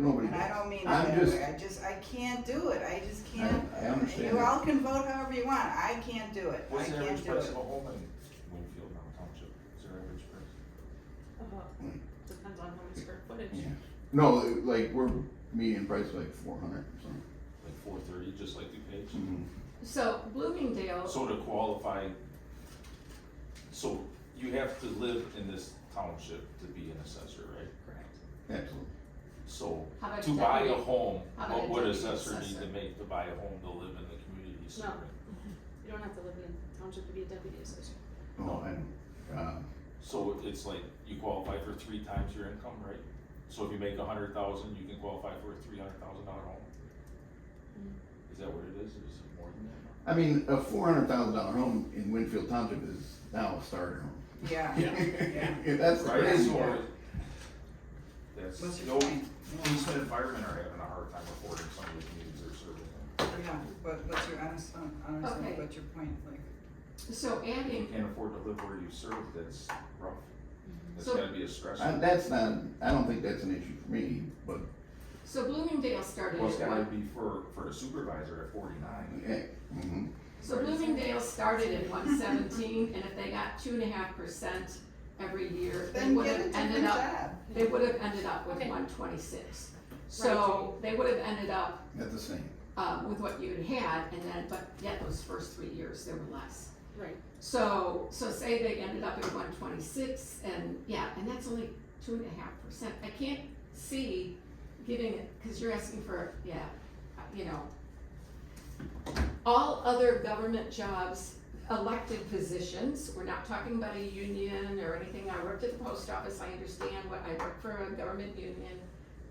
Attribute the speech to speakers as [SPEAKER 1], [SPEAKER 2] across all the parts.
[SPEAKER 1] Nobody
[SPEAKER 2] And I
[SPEAKER 1] does.
[SPEAKER 2] don't mean it
[SPEAKER 1] I'm
[SPEAKER 2] that
[SPEAKER 1] just-
[SPEAKER 2] way, I just, I can't do it, I just can't.
[SPEAKER 1] I understand
[SPEAKER 2] You
[SPEAKER 1] that.
[SPEAKER 2] all can vote however you want, I can't do it, I
[SPEAKER 3] What's the
[SPEAKER 2] can't
[SPEAKER 3] average
[SPEAKER 2] do
[SPEAKER 3] price
[SPEAKER 2] it.
[SPEAKER 3] of a home in Winfield now, township, is there average price?
[SPEAKER 4] Uh, Depends on how much square footage.
[SPEAKER 1] Yeah. No, like, we're median price like four hundred or something.
[SPEAKER 3] Like four thirty, just like DuPage?
[SPEAKER 2] Mm-hmm.
[SPEAKER 5] So Bloomingdale,
[SPEAKER 3] So to qualify, so you have to live in this township to be an assessor, right?
[SPEAKER 5] correct,
[SPEAKER 1] Absolutely.
[SPEAKER 3] So
[SPEAKER 5] How about
[SPEAKER 3] to buy a
[SPEAKER 5] deputy?
[SPEAKER 3] home,
[SPEAKER 5] How about
[SPEAKER 3] what
[SPEAKER 5] a
[SPEAKER 3] would
[SPEAKER 5] deputy
[SPEAKER 3] assessor need
[SPEAKER 5] assessor?
[SPEAKER 3] to make to buy a home to live in the community center?
[SPEAKER 4] You don't have to live in a township to be a deputy assessor.
[SPEAKER 1] Oh, and, uh,
[SPEAKER 3] So it's like, you qualify for three times your income, right? So if you make a hundred thousand, you can qualify for a three hundred thousand dollar home?
[SPEAKER 2] Mm.
[SPEAKER 3] Is that what it is, or is it more than
[SPEAKER 1] I
[SPEAKER 3] that?
[SPEAKER 1] mean, a four hundred thousand dollar home in Winfield Township is now a starter home.
[SPEAKER 2] Yeah, yeah.
[SPEAKER 1] That's the
[SPEAKER 3] Right,
[SPEAKER 1] crazy
[SPEAKER 3] so.
[SPEAKER 1] part.
[SPEAKER 3] That's,
[SPEAKER 2] What's
[SPEAKER 3] you
[SPEAKER 2] your
[SPEAKER 3] know,
[SPEAKER 2] point?
[SPEAKER 3] police and firemen are having a hard time affording some of the communities they're serving. in.
[SPEAKER 2] Yeah, but what's your honest, honestly,
[SPEAKER 5] Okay.
[SPEAKER 2] what's your point, like,
[SPEAKER 5] so
[SPEAKER 3] If you
[SPEAKER 5] adding,
[SPEAKER 3] can't afford to live where you serve, that's rough. That's
[SPEAKER 5] Mhm. So-
[SPEAKER 3] gotta be a
[SPEAKER 1] I,
[SPEAKER 3] stressor.
[SPEAKER 1] that's not, I don't think that's an issue for me, but,
[SPEAKER 5] so Bloomingdale started
[SPEAKER 3] Well, it's
[SPEAKER 5] at
[SPEAKER 3] gotta
[SPEAKER 5] one,
[SPEAKER 3] be for, for a supervisor at forty-nine.
[SPEAKER 1] yeah, mhm.
[SPEAKER 5] so Bloomingdale started at one seventeen, and if they got two and a half percent every year, they
[SPEAKER 2] then
[SPEAKER 5] would
[SPEAKER 2] get a
[SPEAKER 5] have ended
[SPEAKER 2] different
[SPEAKER 5] up,
[SPEAKER 2] job.
[SPEAKER 5] they would have ended up with
[SPEAKER 4] Okay.
[SPEAKER 5] one twenty-six. So they would have ended up,
[SPEAKER 1] That's the same.
[SPEAKER 5] uh, with what you had had, and then, but yet those first three years, there were less.
[SPEAKER 4] Right.
[SPEAKER 5] So, so say they ended up at one twenty-six and, yeah, and that's only two and a half percent. I can't see giving it, cause you're asking for, yeah, uh, you know. All other government jobs, elected positions, we're not talking about a union or anything. I worked at the post office, I understand what, I work for a government union.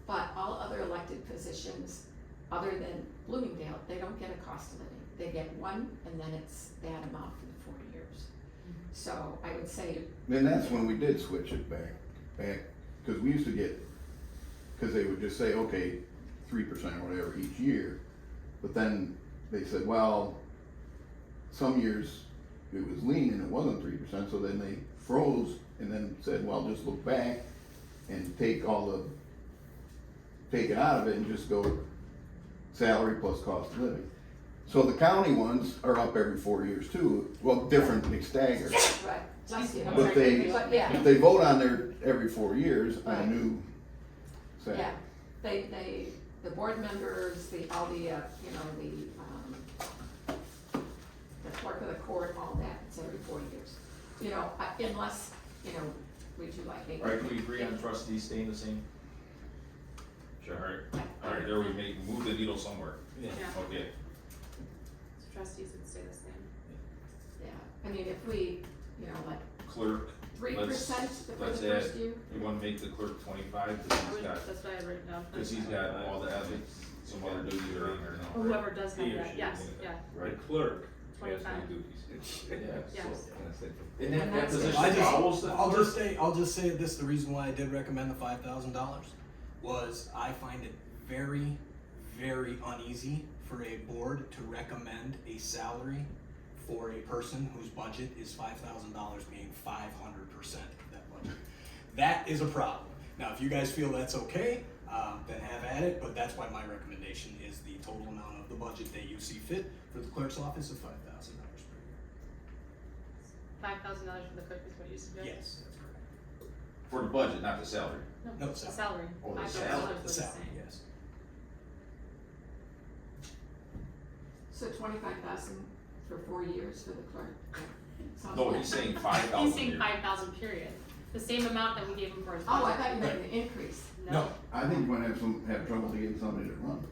[SPEAKER 5] But all other elected positions, other than Bloomingdale, they don't get a cost of living. They get one and then it's that amount for the four years. So I would say,
[SPEAKER 1] Then that's when we did switch it back, back, cause we used to get, cause they would just say, okay, three percent or whatever each year. But then they said, well, some years it was lean and it wasn't three percent, so then they froze and then said, well, just look back and take all the, take it out of it and just go salary plus cost of living. So the county ones are up every four years too, well, different, they stagger.
[SPEAKER 5] right, bless you.
[SPEAKER 1] But they-
[SPEAKER 5] But yeah,
[SPEAKER 1] If they vote on there every four years, I knew. So,
[SPEAKER 5] yeah, they, they, the board members, the, all the, uh, you know, the, um, the clerk of the court, all that, it's every four years. You know, I- unless, you know, we do like eight.
[SPEAKER 3] Alright, can we agree on trustees staying the same? Sure, alright, alright, there we make, move the needle somewhere.
[SPEAKER 4] Yeah.
[SPEAKER 3] Okay,
[SPEAKER 4] So Trustees would stay the same.
[SPEAKER 5] Yeah, I mean, if we, you know, like
[SPEAKER 3] clerk,
[SPEAKER 5] three percent for the
[SPEAKER 3] let's
[SPEAKER 5] first year.
[SPEAKER 3] you wanna make the clerk twenty-five, cause
[SPEAKER 4] I
[SPEAKER 3] he's
[SPEAKER 4] would,
[SPEAKER 3] got,
[SPEAKER 4] that's what I wrote down.
[SPEAKER 3] cause he's got all the ethics, some other duties are on there now.
[SPEAKER 4] Or Whoever does
[SPEAKER 6] He
[SPEAKER 4] have
[SPEAKER 6] or
[SPEAKER 4] that,
[SPEAKER 6] she
[SPEAKER 4] yes,
[SPEAKER 6] would.
[SPEAKER 4] yeah,
[SPEAKER 3] Right,
[SPEAKER 6] clerk.
[SPEAKER 4] twenty-five.
[SPEAKER 3] yeah,
[SPEAKER 4] Yes.
[SPEAKER 3] so. And that,
[SPEAKER 5] And
[SPEAKER 3] that
[SPEAKER 5] that's it.
[SPEAKER 3] position
[SPEAKER 7] I just,
[SPEAKER 3] follows that.
[SPEAKER 7] I'll just say, I'll just say this, the reason why I did recommend the five thousand dollars was I find it very, very uneasy for a board to recommend a salary for a person whose budget is five thousand dollars being five hundred percent of that budget. That is a problem. Now, if you guys feel that's okay, um, then have at it, but that's why my recommendation is the total amount of the budget that you see fit for the clerk's office of five thousand dollars per
[SPEAKER 4] Five thousand dollars for the clerk is what you
[SPEAKER 7] year.
[SPEAKER 4] suggest?
[SPEAKER 7] Yes, that's correct.
[SPEAKER 3] For the budget, not the salary.
[SPEAKER 7] No,
[SPEAKER 4] the
[SPEAKER 7] salary.
[SPEAKER 4] salary.
[SPEAKER 3] Oh, the
[SPEAKER 4] Five thousand
[SPEAKER 3] salary,
[SPEAKER 4] dollars
[SPEAKER 7] The
[SPEAKER 4] was the
[SPEAKER 7] salary,
[SPEAKER 4] same.
[SPEAKER 7] yes.
[SPEAKER 5] So twenty-five thousand for four years for the clerk. Sounds
[SPEAKER 3] No,
[SPEAKER 5] like-
[SPEAKER 3] he's saying five thousand.
[SPEAKER 4] He's saying five thousand period, the same amount that we gave him for his
[SPEAKER 5] Oh, I
[SPEAKER 4] budget.
[SPEAKER 5] thought you meant an increase.
[SPEAKER 1] No, I think we're gonna have some, have trouble to get somebody to run.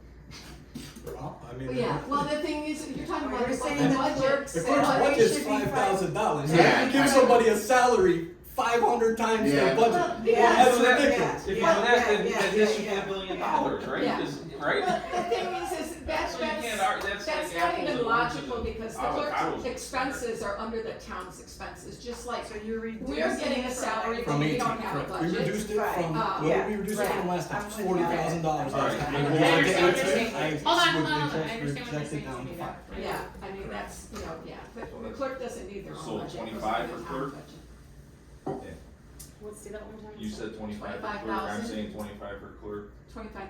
[SPEAKER 7] Well, I mean.
[SPEAKER 5] Well, yeah, well, the thing is, you're talking
[SPEAKER 2] Well,
[SPEAKER 5] about
[SPEAKER 2] you're
[SPEAKER 5] the
[SPEAKER 2] saying the
[SPEAKER 5] budget.
[SPEAKER 2] clerk's-
[SPEAKER 7] The
[SPEAKER 2] If
[SPEAKER 7] clerk's
[SPEAKER 2] Well,
[SPEAKER 7] budget
[SPEAKER 2] it
[SPEAKER 7] is
[SPEAKER 2] should be five-
[SPEAKER 7] five thousand dollars,
[SPEAKER 1] Yeah.
[SPEAKER 7] you give somebody a salary five hundred times their
[SPEAKER 1] Yeah.
[SPEAKER 7] budget,
[SPEAKER 2] yeah,
[SPEAKER 7] that's
[SPEAKER 6] so that-
[SPEAKER 7] ridiculous.
[SPEAKER 6] If you do
[SPEAKER 2] Yeah,
[SPEAKER 6] that, then
[SPEAKER 2] yeah,
[SPEAKER 6] that
[SPEAKER 2] yeah,
[SPEAKER 6] this should be
[SPEAKER 2] yeah,
[SPEAKER 6] a billion
[SPEAKER 2] yeah.
[SPEAKER 6] dollars.
[SPEAKER 3] Dollars, right?
[SPEAKER 5] Yeah.
[SPEAKER 3] Is- right?
[SPEAKER 5] But the thing is, is that's,
[SPEAKER 6] So you can't
[SPEAKER 5] that's,
[SPEAKER 6] ar- that's
[SPEAKER 5] that's
[SPEAKER 6] like
[SPEAKER 5] not
[SPEAKER 6] apples
[SPEAKER 5] even
[SPEAKER 6] and oranges.
[SPEAKER 5] logical because the
[SPEAKER 3] Avocados
[SPEAKER 5] clerk's
[SPEAKER 3] and
[SPEAKER 5] expenses are under the town's expenses, just like,
[SPEAKER 2] So you're reducing.
[SPEAKER 5] we're getting
[SPEAKER 2] it
[SPEAKER 5] a
[SPEAKER 2] from
[SPEAKER 5] salary
[SPEAKER 2] like-
[SPEAKER 5] from
[SPEAKER 7] From
[SPEAKER 5] we
[SPEAKER 7] eighteen,
[SPEAKER 5] don't have a
[SPEAKER 7] correct, we
[SPEAKER 5] budget.
[SPEAKER 7] reduced it
[SPEAKER 2] Right.
[SPEAKER 7] from,
[SPEAKER 5] Uh,
[SPEAKER 7] what
[SPEAKER 2] yeah.
[SPEAKER 7] did we reduce it from
[SPEAKER 2] Right.
[SPEAKER 7] last time,
[SPEAKER 2] I'm with you.
[SPEAKER 7] forty thousand dollars
[SPEAKER 3] All
[SPEAKER 7] last
[SPEAKER 3] right.
[SPEAKER 7] time.
[SPEAKER 3] I
[SPEAKER 7] Well,
[SPEAKER 4] understand
[SPEAKER 7] think
[SPEAKER 4] what
[SPEAKER 7] it's-
[SPEAKER 4] you're saying.
[SPEAKER 7] I
[SPEAKER 4] Hold on,
[SPEAKER 7] would
[SPEAKER 4] hold on, hold on. I understand what
[SPEAKER 7] reject-
[SPEAKER 4] you're
[SPEAKER 7] reject it
[SPEAKER 4] saying,
[SPEAKER 7] down to
[SPEAKER 4] Steve.
[SPEAKER 7] five.
[SPEAKER 5] Yeah, I mean, that's, you know, yeah,
[SPEAKER 3] So
[SPEAKER 5] the, the
[SPEAKER 3] that's-
[SPEAKER 5] clerk doesn't need their own
[SPEAKER 3] so
[SPEAKER 5] budget. it goes
[SPEAKER 3] 25 for
[SPEAKER 5] under the town's
[SPEAKER 3] clerk?
[SPEAKER 5] budget.
[SPEAKER 4] Let's do that one more time.
[SPEAKER 3] You said twenty-five for clerk, I'm
[SPEAKER 5] 25,000.
[SPEAKER 3] saying twenty-five for clerk.
[SPEAKER 5] Twenty-five